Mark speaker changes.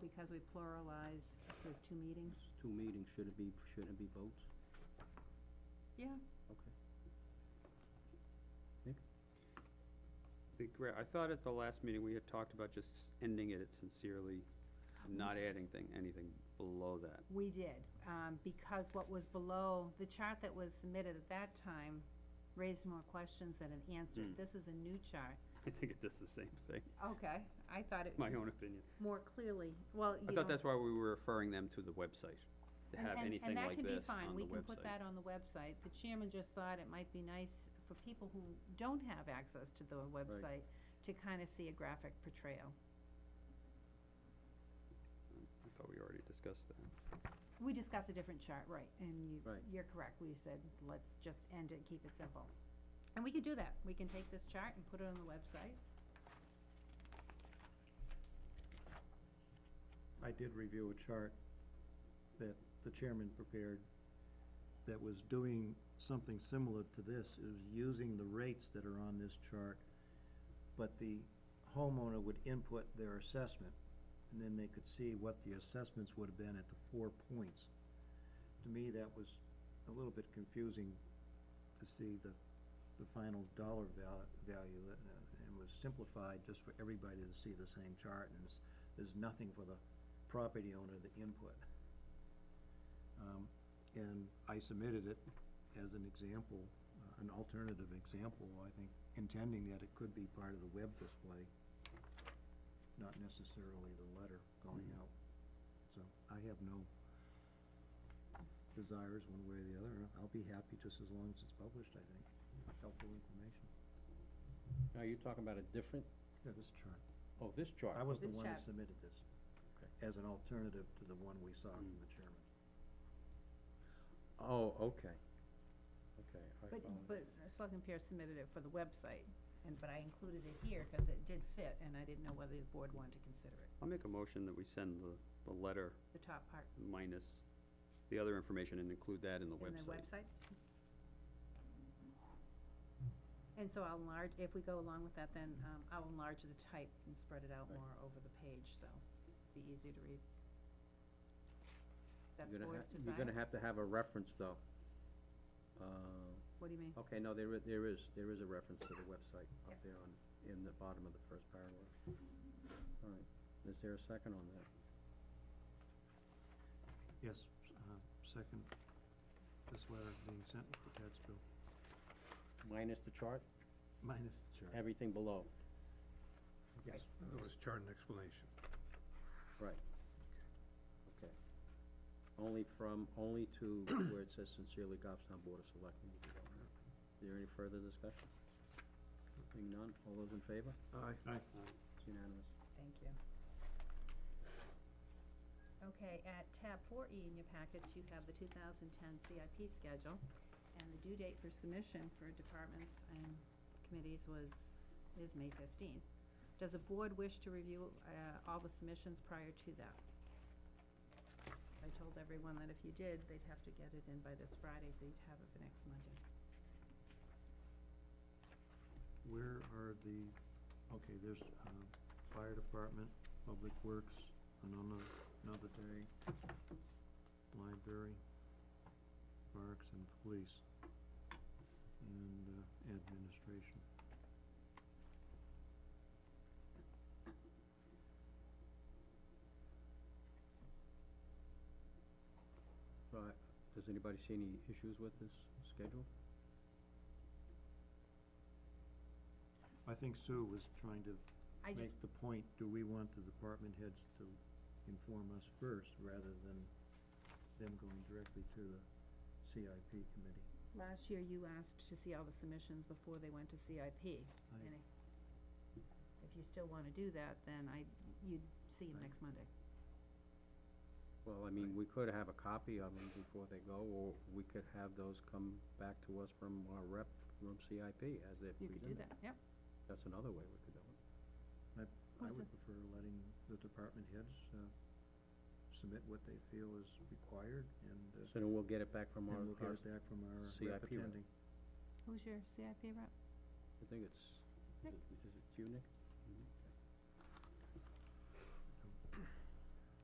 Speaker 1: because we pluralized those two meetings?
Speaker 2: Two meetings, should it be, shouldn't it be votes?
Speaker 1: Yeah.
Speaker 2: Okay.
Speaker 3: The gra- I thought at the last meeting, we had talked about just ending it at sincerely, and not adding thing, anything below that.
Speaker 1: We did, um, because what was below, the chart that was submitted at that time raised more questions than it answered.
Speaker 3: Mm.
Speaker 1: This is a new chart.
Speaker 3: I think it does the same thing,
Speaker 1: Okay, I thought it
Speaker 3: my own opinion.
Speaker 1: more clearly, well, you
Speaker 3: I
Speaker 1: know,
Speaker 3: thought that's why we were referring them to the website, to
Speaker 1: and-
Speaker 3: have
Speaker 1: and- And
Speaker 3: anything like this on the
Speaker 1: that can be fine, we can put
Speaker 3: website.
Speaker 1: that on the website. The chairman just thought it might be nice for people who don't have access to the website to kind of see a graphic portrayal.
Speaker 3: I thought we already discussed that.
Speaker 1: We discussed a different chart, right, and you,
Speaker 2: Right.
Speaker 1: you're correct, we said, let's just end it, keep it simple. And we could do that, we can take this chart and put it on the website.
Speaker 4: I did review a chart that the chairman prepared that was doing something similar to this. It was using the rates that are on this chart, but the homeowner would input their assessment, and then they could see what the assessments would have been at the four points. To me, that was a little bit confusing to see the, the final dollar val- value, uh, and was simplified just for everybody to see the same chart, and it's- there's nothing for the property owner the input. Um, And I submitted it as an example, uh, an alternative example, I think, intending that it could be part of the web display, not necessarily the letter going out. So I have no desires one way or the other. I'll be happy just as long as it's published, I think. Helpful information.
Speaker 2: Now, you're talking about a different,
Speaker 4: Yeah, this chart.
Speaker 2: oh, this chart.
Speaker 4: I was the
Speaker 1: This
Speaker 4: one that
Speaker 1: chart.
Speaker 4: submitted this as an alternative to the one we saw from the chairman.
Speaker 2: Oh, okay. Okay. I
Speaker 1: But,
Speaker 2: follow.
Speaker 1: but Selectman Pierce submitted it for the website, and, but I included it here because it did fit, and I didn't know whether the board wanted to consider it,
Speaker 3: I'll make a motion that we send the, the letter
Speaker 1: the top part
Speaker 3: minus the other information and include that in the
Speaker 1: in the
Speaker 3: website.
Speaker 1: website. And so I'll enlarge, if we go along with that, then, um, I'll enlarge the type and spread it out
Speaker 2: Right.
Speaker 1: more over the page, so be easier to read. Is that the
Speaker 2: You're gonna
Speaker 1: board's
Speaker 2: ha-
Speaker 1: desire?
Speaker 2: You're gonna have to have a reference, though. Uh,
Speaker 1: What do you mean?
Speaker 2: okay, no, there is, there is, there is a reference to the website up
Speaker 1: Yep.
Speaker 2: there on, in the bottom of the first paragraph. All right, is there a second on that?
Speaker 4: Yes, uh, second, this letter being sent with the tax bill,
Speaker 2: Minus the chart,
Speaker 4: minus the chart.
Speaker 2: everything below.
Speaker 4: Yes,
Speaker 5: That was chart and explanation.
Speaker 2: Right. Okay. Only from, only to where it says sincerely Goffstown Board of Selectmen. Is there any further discussion? Seeing none, all those in favor?
Speaker 5: Aye.
Speaker 2: It's unanimous.
Speaker 1: Thank you. Okay, at tab four E in your packets, you have the two thousand ten CIP schedule, and the due date for submission for departments and committees was, is May fifteenth. Does the board wish to review, uh, all the submissions prior to that? I told everyone that if you did, they'd have to get it in by this Friday, so you'd have it for next Monday.
Speaker 4: where are the, okay, there's, um, fire department, public works, another, another day, library, parks and police, and, uh, administration.
Speaker 2: So, I- does anybody see any issues with this schedule?
Speaker 4: I think Sue was trying to
Speaker 1: I just,
Speaker 4: make the point, do we want the department heads to inform us first rather than them going directly to the CIP committee?
Speaker 1: last year you asked to see all the submissions before they went to CIP.
Speaker 4: I-
Speaker 1: And if- If you still want to do that, then I, you'd see him
Speaker 4: Right.
Speaker 1: next Monday.
Speaker 2: Well, I mean, we could have a copy of them before they go, or we could have those come back to us from our rep from CIP as they're
Speaker 1: You
Speaker 2: presented.
Speaker 1: could do that, yep.
Speaker 2: That's another way we could do it.
Speaker 4: I
Speaker 1: Also-
Speaker 4: would prefer letting the department heads, uh, submit what they feel is required and, uh,
Speaker 2: So then we'll get it back from our,
Speaker 4: and we'll get
Speaker 2: our-
Speaker 4: it back from our rep
Speaker 2: CIP rep.
Speaker 4: attending.
Speaker 1: Who's your CIP rep?
Speaker 2: I think it's, is
Speaker 1: Nick.
Speaker 2: it- is it you, Nick?